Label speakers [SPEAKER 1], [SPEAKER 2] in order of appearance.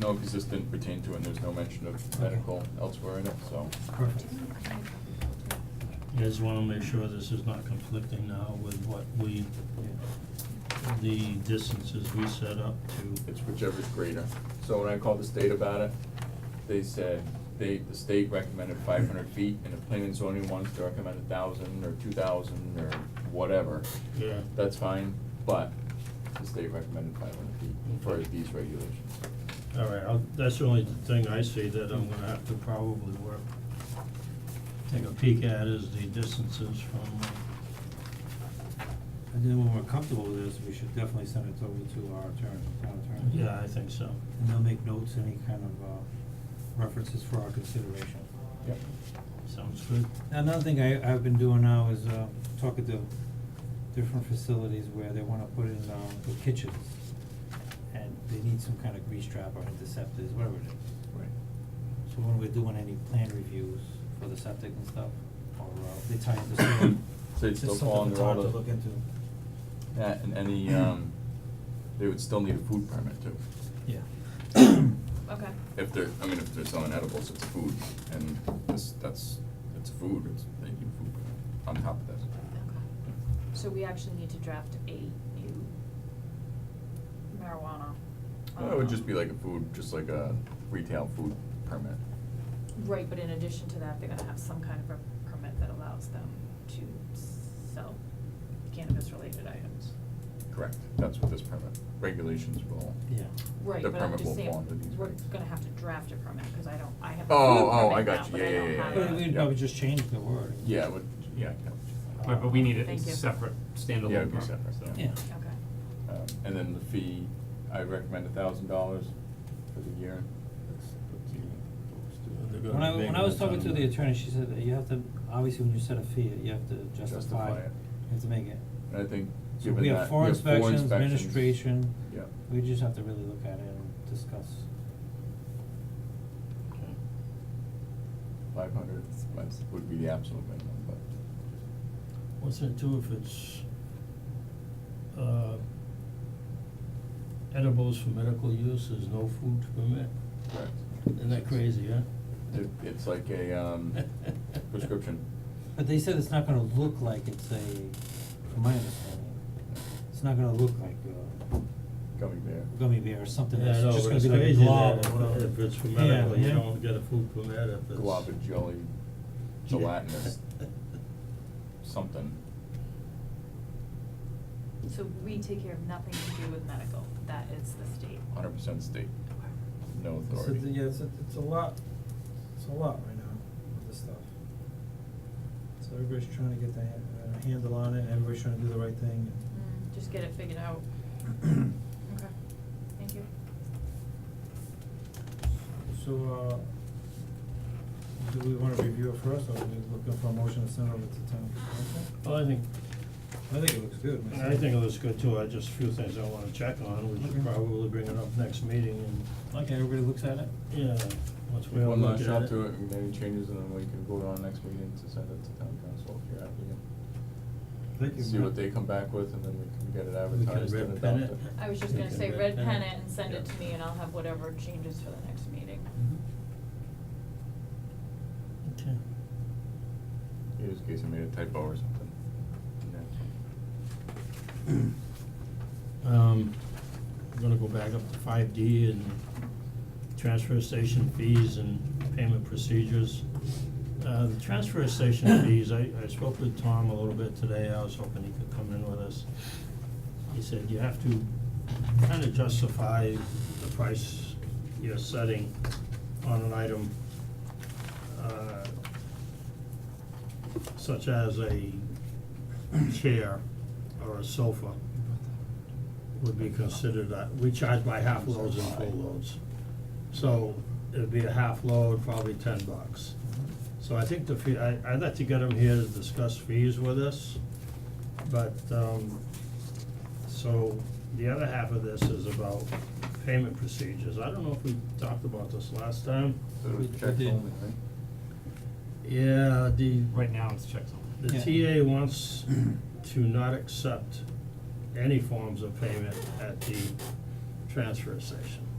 [SPEAKER 1] no, because this didn't pertain to, it, and there's no mention of medical elsewhere in it, so.
[SPEAKER 2] Perfect.
[SPEAKER 3] I just wanna make sure this is not conflicting now with what we, the distances we set up to.
[SPEAKER 1] It's whichever's greater. So when I called the state about it, they said, they, the state recommended five hundred feet, and the planning and zoning wants to recommend a thousand or two thousand or whatever.
[SPEAKER 3] Yeah.
[SPEAKER 1] That's fine, but the state recommended five hundred feet for
[SPEAKER 3] Okay.
[SPEAKER 1] these regulations.
[SPEAKER 3] All right, I'll, that's the only thing I see that I'm gonna have to probably work, take a peek at is the distances from,
[SPEAKER 2] And then when we're comfortable with this, we should definitely send it over to our attorney, town attorney.
[SPEAKER 3] yeah, I think so.
[SPEAKER 2] And they'll make notes, any kind of uh references for our consideration.
[SPEAKER 1] Yep.
[SPEAKER 3] Sounds good.
[SPEAKER 2] Another thing I I've been doing now is uh talking to different facilities where they wanna put in um the kitchens. And they need some kind of grease trap or interceptors, whatever it is.
[SPEAKER 1] Right.
[SPEAKER 2] So when we're doing any plan reviews for the septic and stuff, or uh they tie into sewer.
[SPEAKER 1] So it's still fall under all the-
[SPEAKER 2] It's just something that's hard to look into.
[SPEAKER 1] That, and any, um, they would still need a food permit too.
[SPEAKER 2] Yeah.
[SPEAKER 4] Okay.
[SPEAKER 1] If they're, I mean, if they're selling edibles, it's food, and this, that's, it's food, it's, they need food permit on top of that.
[SPEAKER 4] So we actually need to draft a new marijuana.
[SPEAKER 1] Well, It would
[SPEAKER 4] um,
[SPEAKER 1] just be like a food, just like a retail food permit.
[SPEAKER 4] Right, but in addition to that, they're gonna have some kind of a permit that allows them to sell cannabis-related items.
[SPEAKER 1] Correct. That's what this permit, regulations will.
[SPEAKER 2] Yeah.
[SPEAKER 4] Right,
[SPEAKER 1] The
[SPEAKER 4] but I'm
[SPEAKER 1] permit will
[SPEAKER 4] just saying,
[SPEAKER 1] fall under these
[SPEAKER 4] we're
[SPEAKER 1] regs.
[SPEAKER 4] gonna have to draft a permit, cause I don't, I have a food
[SPEAKER 1] Oh, oh, I
[SPEAKER 4] permit
[SPEAKER 1] got
[SPEAKER 4] now,
[SPEAKER 1] you.
[SPEAKER 4] but
[SPEAKER 1] Yeah,
[SPEAKER 4] I
[SPEAKER 1] yeah,
[SPEAKER 4] don't
[SPEAKER 1] yeah,
[SPEAKER 4] have
[SPEAKER 1] yeah.
[SPEAKER 4] a-
[SPEAKER 2] But we'd
[SPEAKER 1] Yeah.
[SPEAKER 2] probably just change the word.
[SPEAKER 1] Yeah, it would, yeah. I got what you're saying.
[SPEAKER 5] Right, but we need a
[SPEAKER 4] Thank you.
[SPEAKER 5] separate standalone
[SPEAKER 1] Yeah, it'd be
[SPEAKER 5] permit,
[SPEAKER 1] separate,
[SPEAKER 5] so.
[SPEAKER 2] Yeah.
[SPEAKER 4] Okay.
[SPEAKER 1] Um, and then the fee, I recommend a thousand dollars for the year. That's what you-
[SPEAKER 2] When I, when I was talking to the attorney, she said that you have to, obviously when you set a fee, you have to justify,
[SPEAKER 1] Justify
[SPEAKER 2] it.
[SPEAKER 1] it.
[SPEAKER 2] you have to make it.
[SPEAKER 1] And I think,
[SPEAKER 2] So
[SPEAKER 1] given that,
[SPEAKER 2] we
[SPEAKER 1] you
[SPEAKER 2] have four inspections, administration,
[SPEAKER 1] Yeah.
[SPEAKER 2] we just have to really look at it and discuss.
[SPEAKER 3] Okay.
[SPEAKER 1] Five hundred would be the absolute minimum, but
[SPEAKER 3] What's that too if it's uh edibles for medical use, there's no food permit?
[SPEAKER 1] correct.
[SPEAKER 3] Isn't that crazy, huh?
[SPEAKER 1] It, it's like a, um, prescription.
[SPEAKER 2] But they said it's not gonna look like it's a, from my understanding, it's not gonna look like a
[SPEAKER 1] Gummy bear.
[SPEAKER 2] gummy bear or something,
[SPEAKER 3] Yeah,
[SPEAKER 2] it's
[SPEAKER 3] I know,
[SPEAKER 2] just
[SPEAKER 3] but
[SPEAKER 2] gonna
[SPEAKER 3] it's
[SPEAKER 2] be like a
[SPEAKER 3] crazy
[SPEAKER 2] blob
[SPEAKER 3] that
[SPEAKER 2] or
[SPEAKER 3] if-
[SPEAKER 2] whatever.
[SPEAKER 3] If it's for medical,
[SPEAKER 2] Yeah,
[SPEAKER 3] you
[SPEAKER 2] yeah.
[SPEAKER 3] don't get a food permit if it's.
[SPEAKER 1] Guava jelly, gelatinous, something.
[SPEAKER 4] So we take care of nothing to do with medical, that is the state.
[SPEAKER 1] Hundred percent state,
[SPEAKER 4] Okay.
[SPEAKER 1] no
[SPEAKER 2] It's a-
[SPEAKER 1] authority.
[SPEAKER 2] yeah, it's a, it's a lot, it's a lot right now with this stuff. So everybody's trying to get their ha- uh, handle on it, and everybody's trying to do the right thing.
[SPEAKER 4] Mm, just get it figured out. Okay, thank you.
[SPEAKER 2] So, uh, do we wanna review it first, or are we looking for a motion to send over to town council?
[SPEAKER 3] Well, I think,
[SPEAKER 2] I think it looks good myself.
[SPEAKER 3] I think it looks good too, I just, a few things I wanna check on, we
[SPEAKER 2] Okay.
[SPEAKER 3] should probably bring it up next meeting
[SPEAKER 2] Okay, everybody looks at it?
[SPEAKER 3] and, yeah, once we all
[SPEAKER 1] One
[SPEAKER 3] look at
[SPEAKER 1] last shot
[SPEAKER 3] it.
[SPEAKER 1] to it, and any changes, and then we can vote on next meeting to send it to town council if you're happy.
[SPEAKER 2] Thank you.
[SPEAKER 1] See what they come back with, and then we can get it
[SPEAKER 3] We can
[SPEAKER 1] advertised and
[SPEAKER 3] red pen
[SPEAKER 1] adopt
[SPEAKER 3] it.
[SPEAKER 1] it.
[SPEAKER 4] I was just
[SPEAKER 3] We
[SPEAKER 4] gonna
[SPEAKER 3] can
[SPEAKER 4] say,
[SPEAKER 3] red
[SPEAKER 4] red
[SPEAKER 3] pen
[SPEAKER 4] pen
[SPEAKER 3] it.
[SPEAKER 4] it and send it
[SPEAKER 1] Yeah.
[SPEAKER 4] to me, and I'll have whatever changes for the next meeting.
[SPEAKER 3] Mm-hmm. Okay.
[SPEAKER 1] In this case, I made a typo or something.
[SPEAKER 3] Um, I'm gonna go back up to five D and transfer station fees and payment procedures. Uh, the transfer station fees, I, I spoke with Tom a little bit today, I was hoping he could come in with us. He said you have to kinda justify the price you're setting on an item, uh, such as a chair or a sofa would be considered, uh, we charge by half loads and full loads. So it'd be a half load, probably ten bucks. So I think the fee, I, I'd like to get him here to discuss fees with us, but, um, so the other half of this is about payment procedures. I don't know if we talked about this last time.
[SPEAKER 1] So it was
[SPEAKER 2] We- we
[SPEAKER 1] checks
[SPEAKER 2] did.
[SPEAKER 1] only, right?
[SPEAKER 3] Yeah, the.
[SPEAKER 5] Right now, it's checks only.
[SPEAKER 3] The TA wants to not accept any forms of payment at the transfer station.